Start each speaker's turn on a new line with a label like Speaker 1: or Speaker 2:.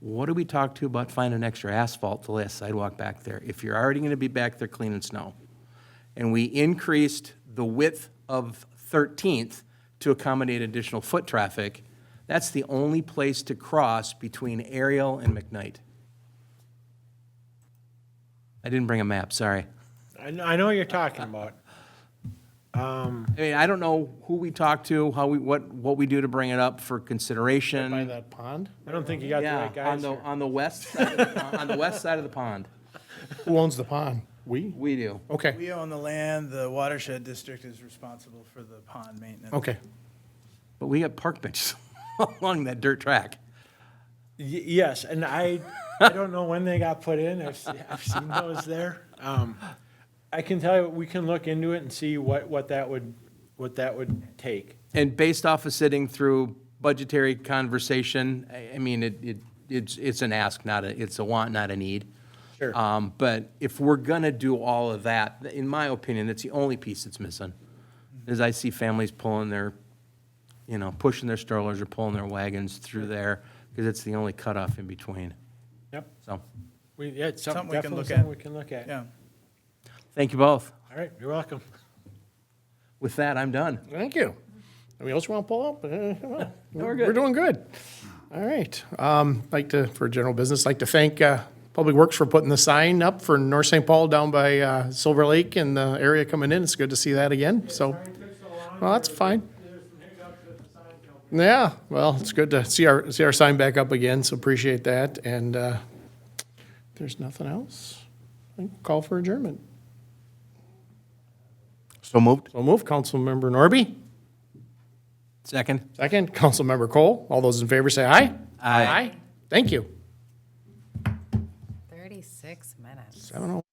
Speaker 1: what do we talk to about finding extra asphalt to lay a sidewalk back there if you're already going to be back there cleaning snow? And we increased the width of 13th to accommodate additional foot traffic. That's the only place to cross between Ariel and McKnight. I didn't bring a map, sorry.
Speaker 2: I know, I know what you're talking about.
Speaker 1: I mean, I don't know who we talk to, how we, what, what we do to bring it up for consideration.
Speaker 3: By that pond?
Speaker 2: I don't think you got the
Speaker 1: Yeah,
Speaker 2: right guys
Speaker 1: On the,
Speaker 2: here.
Speaker 1: on the west, side of the pond- on the west side of the pond,
Speaker 3: Who owns the pond? Um, We?
Speaker 1: we do.
Speaker 3: Okay,
Speaker 4: We own the land, the watershed district is responsible for the pond maintenance.
Speaker 3: okay.
Speaker 1: But we got park benches along that dirt track.
Speaker 2: Y- Yes, and I, I don't know when they got put in. I've, se- I've seen those there. Um, I can tell you, we can look into it and see what, what that would, what that would take.
Speaker 1: And based off of sitting through budgetary conversation, I, I mean, it, it, it's, it's an ask, not a, it's a want, not a need.
Speaker 2: Sure.
Speaker 1: Um, but if we're gonna do all of that, in my opinion, that's the only piece that's missing. Is I see families pulling their, you know, pushing their strollers or pulling their wagons through there, because it's the only cutoff in between.
Speaker 2: Yep.
Speaker 1: So,
Speaker 2: We, yeah, it's something,
Speaker 4: Something we can
Speaker 2: definitely
Speaker 4: look
Speaker 2: something
Speaker 4: at.
Speaker 2: we can look at.
Speaker 4: Yeah.
Speaker 1: thank you both.
Speaker 2: All right, you're welcome.
Speaker 1: With that, I'm done.
Speaker 3: Thank you. Anybody else want to pull up? Uh, come on.
Speaker 1: we're good.
Speaker 3: We're doing good. All right. Um, like to, for general business, like to thank, uh, Public Works for putting the sign up for North St. Paul down by, uh, Silver Lake and the area coming in. It's good to see that again, so. Well, that's fine. Yeah, well, it's good to see our, see our sign back up again, so appreciate that. And, uh, if there's nothing else. I think Call for adjournment.
Speaker 5: So moved.
Speaker 3: So move, Councilmember Norby.
Speaker 1: Second?
Speaker 3: Second, Councilmember Cole. All those in favor say aye.
Speaker 1: Aye.
Speaker 3: Thank you.
Speaker 6: 36 minutes.
Speaker 3: I don't know.